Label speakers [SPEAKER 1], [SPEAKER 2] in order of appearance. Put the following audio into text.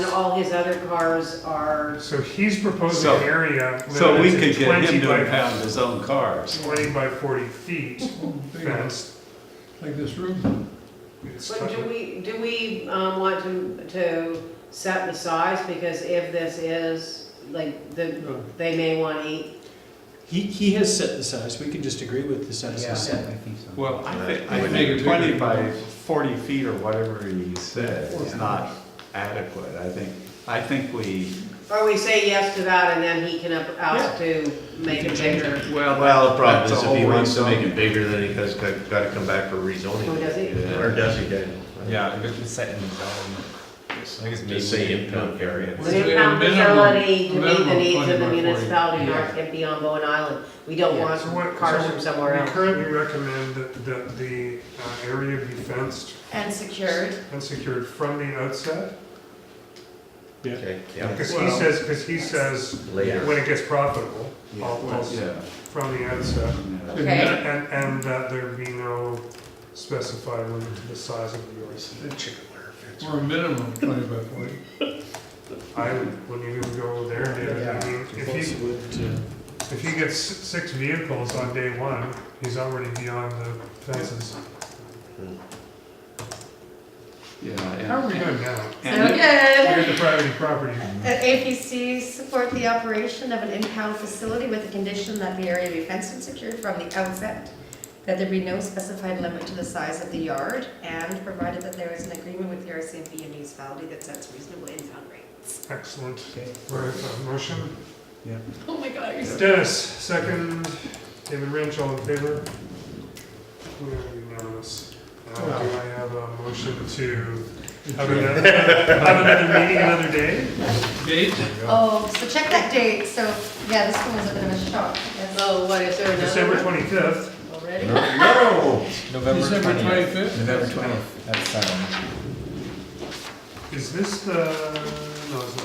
[SPEAKER 1] all his other cars are,
[SPEAKER 2] So he's proposing
[SPEAKER 3] So-
[SPEAKER 2] an area
[SPEAKER 3] So we
[SPEAKER 2] limited
[SPEAKER 3] could
[SPEAKER 2] to
[SPEAKER 3] get him
[SPEAKER 2] twenty
[SPEAKER 3] to impound
[SPEAKER 2] by,
[SPEAKER 3] his own cars.
[SPEAKER 2] twenty by forty feet
[SPEAKER 4] Big ones,
[SPEAKER 2] fenced.
[SPEAKER 4] Like this room?
[SPEAKER 2] It's
[SPEAKER 1] but do
[SPEAKER 2] tough.
[SPEAKER 1] we, do we um, want to, to set the size? Because if this is, like, the, they may want eight,
[SPEAKER 5] He, he has set the size, we can just agree with the size
[SPEAKER 6] Yeah, I
[SPEAKER 5] he's set.
[SPEAKER 6] think so.
[SPEAKER 3] Well, I think, I
[SPEAKER 4] Would make
[SPEAKER 3] think
[SPEAKER 4] it
[SPEAKER 3] twenty
[SPEAKER 4] bigger.
[SPEAKER 3] by forty feet or whatever he said is not adequate. I think, I think we,
[SPEAKER 1] or we say yes to that and then he can up- ask to make
[SPEAKER 5] can
[SPEAKER 1] it
[SPEAKER 5] change
[SPEAKER 1] bigger.
[SPEAKER 3] well,
[SPEAKER 7] Well, the problem
[SPEAKER 3] That's
[SPEAKER 7] is
[SPEAKER 3] a
[SPEAKER 7] if he
[SPEAKER 3] whole
[SPEAKER 7] wants to
[SPEAKER 3] rezone.
[SPEAKER 7] make it bigger, then he has got to come back for rezoning.
[SPEAKER 1] Oh, does he?
[SPEAKER 7] Yeah, Or does he? then?
[SPEAKER 6] Yeah, if it's set in zone, I guess maybe.
[SPEAKER 7] Just say impound area.
[SPEAKER 4] Well,
[SPEAKER 1] An
[SPEAKER 4] we have a
[SPEAKER 1] impound
[SPEAKER 4] minimum-
[SPEAKER 1] facility to meet the
[SPEAKER 4] minimum
[SPEAKER 1] needs of
[SPEAKER 4] 20
[SPEAKER 1] the
[SPEAKER 4] by 40.
[SPEAKER 1] municipality
[SPEAKER 4] Yeah.
[SPEAKER 1] north and beyond Bowen Island. We don't
[SPEAKER 5] Yeah.
[SPEAKER 1] want
[SPEAKER 2] So what-
[SPEAKER 1] cars
[SPEAKER 2] so
[SPEAKER 1] from somewhere
[SPEAKER 2] We
[SPEAKER 1] else.
[SPEAKER 2] currently recommend that, that the uh, area be fenced
[SPEAKER 8] And secured.
[SPEAKER 2] and secured from the outset.
[SPEAKER 7] Okay, yeah,
[SPEAKER 2] Because he
[SPEAKER 4] Well-
[SPEAKER 2] says, because he says,
[SPEAKER 7] later.
[SPEAKER 2] when it gets profitable, all
[SPEAKER 3] well,
[SPEAKER 2] all
[SPEAKER 3] yeah.
[SPEAKER 2] from the outset.
[SPEAKER 3] yeah.
[SPEAKER 8] Okay.
[SPEAKER 2] And, and that there be no specified limit to the size of the yard.
[SPEAKER 4] Or a minimum twenty by forty.
[SPEAKER 2] I would- wouldn't even go there, David. I mean, if he, if he gets s- six vehicles on day one, he's already beyond the fences. How
[SPEAKER 3] Yeah,
[SPEAKER 2] are we doing now?
[SPEAKER 8] So uh,
[SPEAKER 3] and,
[SPEAKER 2] We got
[SPEAKER 8] good.
[SPEAKER 2] the private property.
[SPEAKER 8] That APC support the operation of an impound facility with the condition that the area be fenced and secured from the outset, that there be no specified limit to the size of the yard, and provided that there is an agreement with the RCMP and municipality that sets reasonable impound rates.
[SPEAKER 2] Excellent.
[SPEAKER 5] Okay.
[SPEAKER 2] We're at the motion.
[SPEAKER 8] Oh my god, are
[SPEAKER 2] Dennis, second. David Rynch, all in favor? We are unanimous. Now, do I have a motion to have another, have another meeting another day?
[SPEAKER 4] Date?
[SPEAKER 8] Oh, so check that date, so, yeah, this one was a bit of a shock, yes.
[SPEAKER 1] Oh, what, is there another
[SPEAKER 2] December
[SPEAKER 1] one
[SPEAKER 2] twenty-fifth.
[SPEAKER 1] already?
[SPEAKER 7] No!
[SPEAKER 6] November
[SPEAKER 4] December
[SPEAKER 6] twentieth.
[SPEAKER 4] 25th?
[SPEAKER 6] November twentieth, that's, um.
[SPEAKER 2] Is this the, no, it's not.